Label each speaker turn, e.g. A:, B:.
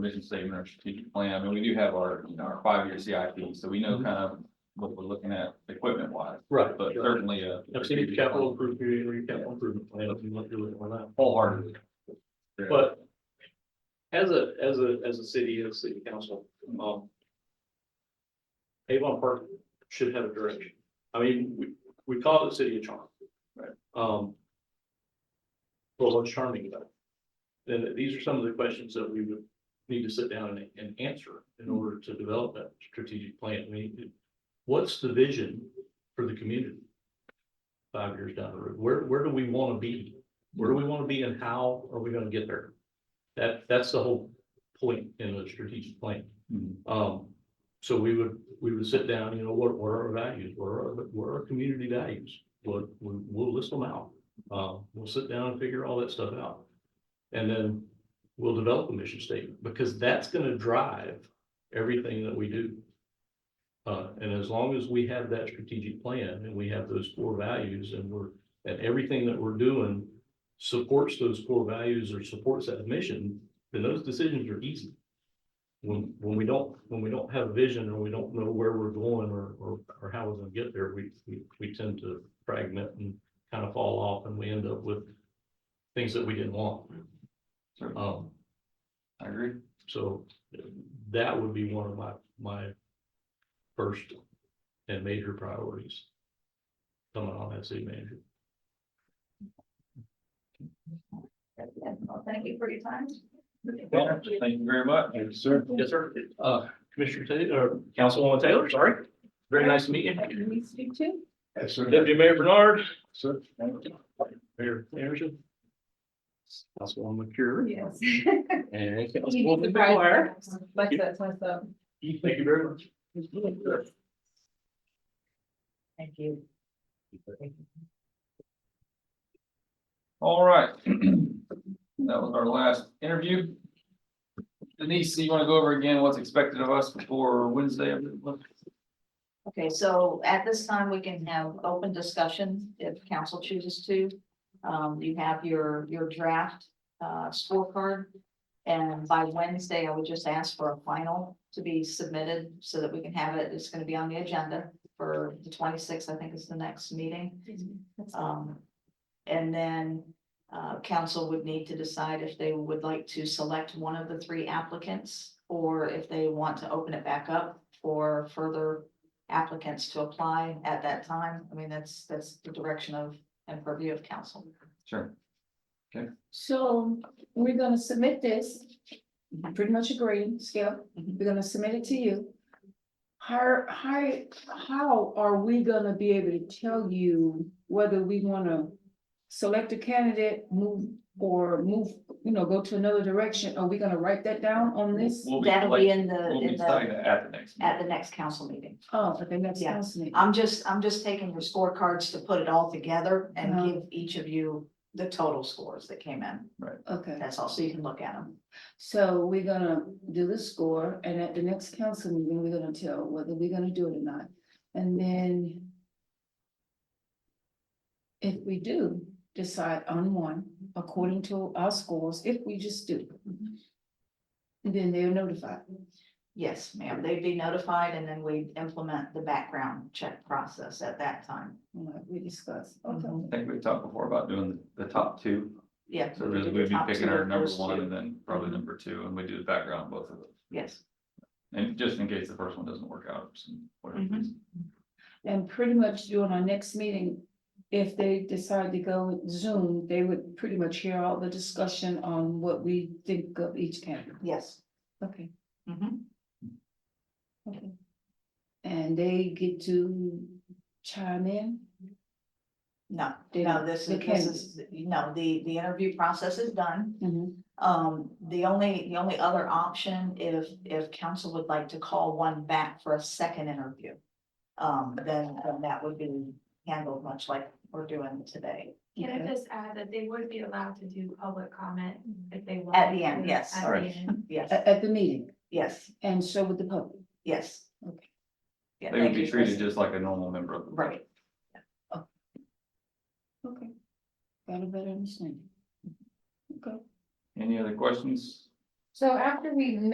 A: vision statement, our strategic plan, I mean, we do have our, you know, our five-year CIP, so we know
B: Mhm.
A: kind of what we're looking at equipment wise,
B: Right,
A: but certainly a.
B: I've seen your capital improvement, your capital improvement plan, if you want to do it or not.
A: Wholeheartedly.
B: But as a, as a, as a city, as a city council, um. Avon Park should have a direction. I mean, we, we call it the city of charm.
A: Right.
B: Um. Well, what's charming about it? Then these are some of the questions that we would need to sit down and, and answer in order to develop that strategic plan. I mean, what's the vision for the community? Five years down the road, where, where do we want to be? Where do we want to be and how are we gonna get there? That, that's the whole point in the strategic plan.
A: Mhm.
B: Um, so we would, we would sit down, you know, what, what are our values? What are, our- what are our community values? What, we- we'll list them out. Uh, we'll sit down and figure all that stuff out. And then we'll develop a mission statement because that's gonna drive everything that we do. Uh, and as long as we have that strategic plan and we have those core values and we're, and everything that we're doing supports those core values or supports that mission, then those decisions are easy. When, when we don't, when we don't have a vision or we don't know where we're going or, or, or how we're gonna get there, we, we, we tend to fragment and kind of fall off and we end up with things that we didn't want.
A: Certainly.
B: Um,
A: I agree.
B: so that would be one of my, my first and major priorities coming on as city manager.
C: Well, Thank you for your time.
A: Well, Thank you very much.
B: Thank you, sir. Yes, sir. Uh, Commissioner Taylor, or Councilwoman Taylor, sorry. Very nice to meet
C: Happy
B: you.
C: to meet you too.
B: Yes, sir. Deputy Mayor Bernard. Sir. Mayor Anderson. Councilwoman McCure.
C: Yes.
B: And
C: You
B: Councilwoman McGuire.
C: surprised me. Like that's
D: uh,
C: myself.
B: Thank you very much.
C: Thank you.
A: All right. That was our last interview. Denise, you want to go over again what's expected of us before Wednesday?
C: Okay, so at this time, we can have open discussion if council chooses to. Um, you have your, your draft, uh, scorecard. And by Wednesday, I would just ask for a final to be submitted so that we can have it. It's gonna be on the agenda for the twenty-sixth, I think is the next meeting. Um, and then, uh, council would need to decide if they would like to select one of the three applicants. Or if they want to open it back up for further applicants to apply at that time. I mean, that's, that's the direction of and purview of council.
A: Sure.
D: So we're gonna submit this, I pretty much agree, Skip,
C: Mhm.
D: we're gonna submit it to you. How, how, how are we gonna be able to tell you whether we wanna select a candidate, move, or move, you know, go to another direction? Are we gonna write that down on this?
A: We'll be
C: That'll
A: like,
C: be in the,
A: we'll
C: in
A: be
C: the,
A: starting at the next.
C: at the next council meeting.
D: Oh, okay, that's
C: Yeah.
D: fascinating.
C: I'm just, I'm just taking your scorecards to put it all together and
D: Uh-huh.
C: give each of you the total scores that came in.
D: Okay,
C: That's all, so you can look at them.
D: so we're gonna do the score, and at the next council meeting, we're gonna tell whether we're gonna do it or not, and then. If we do decide on one, according to our scores, if we just do. Then they're notified,
C: Yes, ma'am, they'd be notified and then we implement the background check process at that time.
D: like we discussed,
C: Mm-hmm.
A: I
D: okay,
A: think we talked before about doing the top two.
C: Yeah.
A: So
C: we
A: really
C: do the
A: we'd be
C: top
A: picking
C: two
A: our
C: of
A: number
C: those
A: one
C: two. Mm-hmm.
A: and then probably number two, and we do the background on both of them.
C: Yes,
A: And just in case the first one doesn't work out, for some- whatever
C: Mhm.
A: reason.
D: and pretty much during our next meeting. If they decide to go with Zoom, they would pretty much hear all the discussion on what we think of each candidate,
C: yes.
D: okay.
C: Mhm.
D: Okay. And they get to chime in?
C: No,
D: They
C: no,
D: don't-
C: this
D: they
C: is, this
D: can't.
C: is, no, the, the interview process is done.
D: Mm-hmm.
C: Um, the only, the only other option, if, if council would like to call one back for a second interview. Um, then, then that would be handled much like we're doing today.
E: Can I just add that they would be allowed to do public comment if they want?
C: At the end, yes.
E: At the
A: Alright.
E: end.
C: Yes,
D: At, at the meeting,
C: yes,
D: and so with the public,
C: yes.
D: Okay.
C: Yeah,
A: They would
C: thank
A: be
C: you,
A: treated
C: Chris.
A: just like a normal member of the.
C: Right,
D: okay. Got a better understanding. Okay.
A: Any other questions?
F: So after we